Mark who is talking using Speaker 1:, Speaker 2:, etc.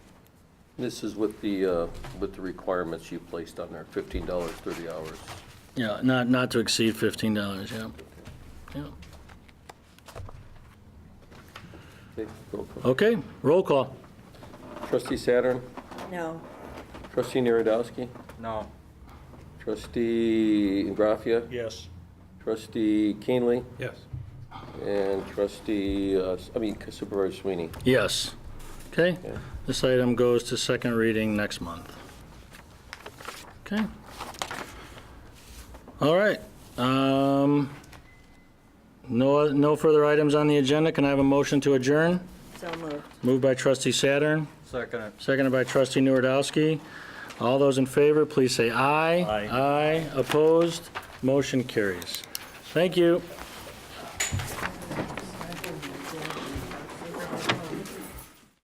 Speaker 1: This is with the, uh, with the requirements you placed on there, fifteen dollars, thirty hours.
Speaker 2: Yeah, not, not to exceed fifteen dollars, yeah. Yeah.
Speaker 1: Okay, roll call.
Speaker 2: Okay, roll call.
Speaker 1: Trustee Saturn,
Speaker 3: No.
Speaker 1: trustee Narodowski,
Speaker 4: No.
Speaker 1: trustee Graffia,
Speaker 4: Yes.
Speaker 1: trustee Keenly,
Speaker 4: Yes.
Speaker 1: and trustee, uh, I mean Supervisor Sweeney.
Speaker 2: Yes. Okay,
Speaker 1: Yeah.
Speaker 2: this item goes to second reading next month. Okay. All right. Um, No, no further items on the agenda. Can I have a motion to adjourn?
Speaker 3: So moved.
Speaker 2: Moved by trustee Saturn,
Speaker 4: Second it.
Speaker 2: seconded by trustee Nuredowski. All those in favor, please say aye.
Speaker 4: Aye.
Speaker 2: Aye, opposed, motion carries. Thank you.